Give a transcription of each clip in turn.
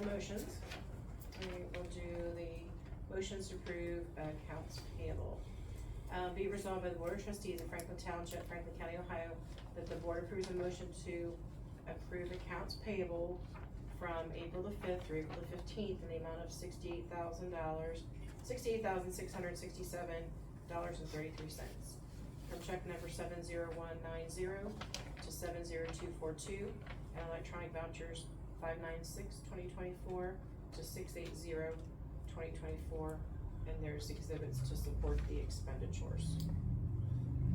motions. We will do the motions to approve accounts payable. Uh, be resolved by the Board of Trustees of Franklin Township, Franklin County, Ohio, that the board approves a motion to approve accounts payable from April the fifth through April the fifteenth in the amount of sixty-eight thousand dollars, sixty-eight thousand six hundred sixty-seven dollars and thirty-three cents. From check number seven zero one nine zero to seven zero two four two, and electronic vouchers five nine six twenty twenty-four to six eight zero twenty twenty-four, and there's exhibits to support the expenditures.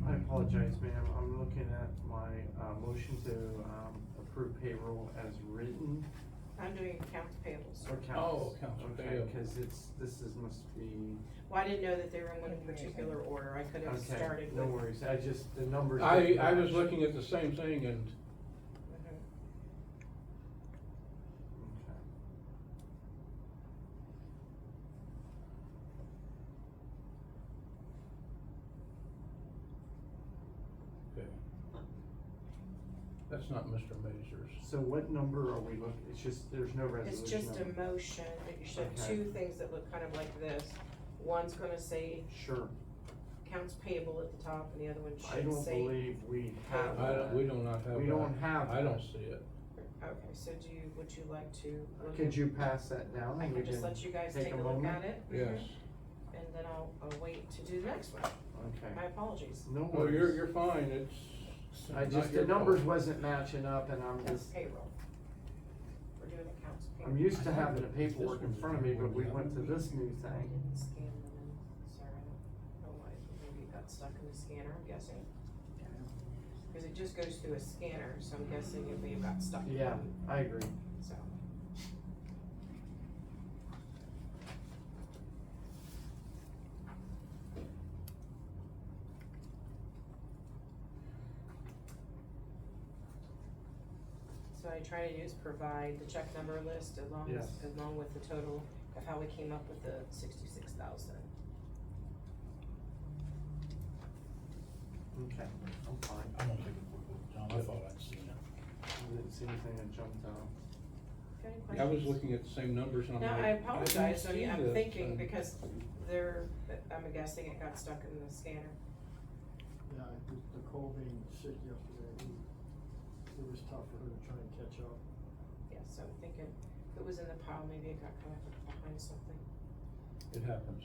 I apologize, ma'am, I'm looking at my, uh, motion to, um, approve payroll as written I'm doing accounts payables. or counts. Oh, counts Okay, payable. cause it's, this is, must be, Well, I didn't know that they were in one particular order, I could have okay, started with. no worries, I just, the numbers. I, didn't I was match. looking at the same thing and Mhm. Okay. okay. That's not Mr. Mazur's. So what number are we looking, it's just, there's no resolution. It's just a number. motion, that you should have Okay. two things that look kind of like this. One's gonna say Sure, accounts payable at the top, and the other one I should don't say. believe we I have don't, we do not have We don't that. have. I don't see it. Okay, so do you, would you like to? look Could at- you pass that down? I and can we just let you guys take take a a look at moment? it. Yes. Mhm. And then I'll, I'll wait to do the next one. Okay, My apologies. no Oh, you're, worries. you're fine. It's. I not just, your the numbers fault. wasn't matching up and I'm That's just, payroll. We're doing accounts payable. I'm used to having the I think paperwork this in was front of me, the but we one went to that- this new I thing. didn't scan them in, sorry, I don't know why, maybe it got stuck in the scanner, I'm guessing. Cause it just goes through a scanner, so I'm guessing it may have got stuck. in Yeah, one, I agree. So. So what I try to do is provide the check number list along, Yes. along with the total of how we came up with the sixty-six thousand. Okay, I'm fine. I don't think it would, John, I thought I'd seen it. I didn't see anything that jumped out. Got any I was questions? looking at the same numbers and I'm No, like. I didn't apologize, I mean, see um, I'm this. thinking And- because there, I'm guessing it got stuck in the scanner. Yeah, the- the Colvin sick yesterday, he- it was tough for her to try and catch up. Yeah, so I'm thinking, if it was in the pile, maybe it got kind of behind something. It happens.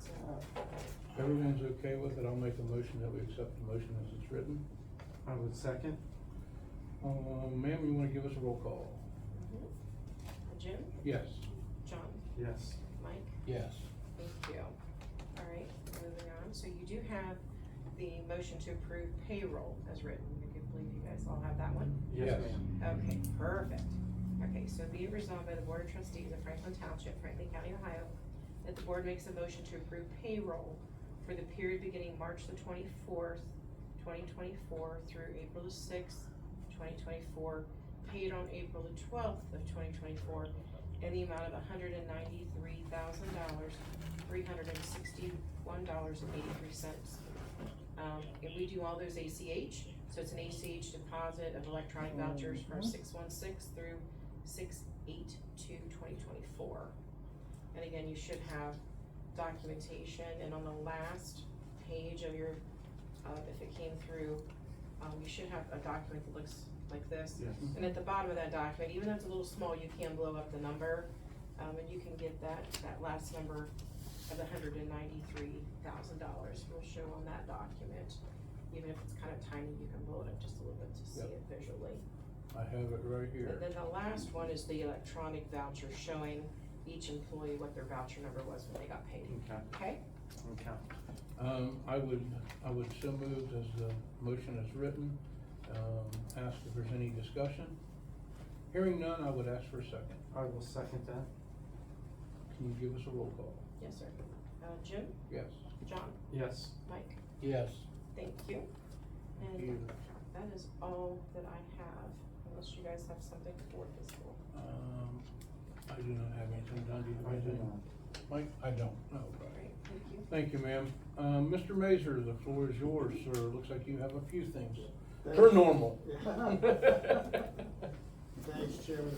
So, Mm-hmm. If everyone's okay with it, I'll make a motion that we accept the motion as it's written. I would second. Um, ma'am, you wanna give us a roll call? mhm. Jim, Yes. John, Yes, Mike, Yes. thank you. All right, moving on, so you do have the motion to approve payroll as written, I can believe you guys all have that one. yes Yes. ma'am. Okay, perfect. Okay, so be it resolved by the Board of Trustees of Franklin Township, Franklin County, Ohio, that the board makes a motion to approve payroll for the period beginning March the twenty-fourth, twenty twenty-four through April the sixth, twenty twenty-four, paid on April the twelfth of twenty twenty-four, in the amount of hundred and ninety-three thousand dollars, three hundred and sixty-one dollars and eighty-three cents. Um, and we do all those ACH, so it's an ACH deposit of electronic vouchers from six one six through six eight two twenty twenty-four. And again, you should have documentation, and on the last page of your, uh, if it came through, um, you should have a document that looks like this. Yes. And at the bottom of that document, even though it's a little small, you can blow up the number, um, and you can get that, that last number of the hundred and ninety-three thousand dollars will show on that document. Even if it's kind of tiny, you can blow it up just a little bit to see Yep. it visually. I have it right And here. then the last one is the electronic voucher showing each employee what their voucher number was when they got paid, Okay, okay? okay. Um, I would, I would so move as the motion is written, um, ask if there's any discussion. Hearing none, I would ask for a second. I will second that. Can you give us a roll call? Yes, sir. Uh, Jim, Yes. John, Yes, Mike, Yes. thank you. And that is all that I have, unless you guys have something for fiscal. Um, I do not have anything, Don, do you I have do anything? not. Mike? I don't. No, right. Great, thank you. Thank you, ma'am. Um, Mr. Mazur, the floor is yours, sir. Looks like you have a few things. Thanks. Per normal. Thanks, Chairman.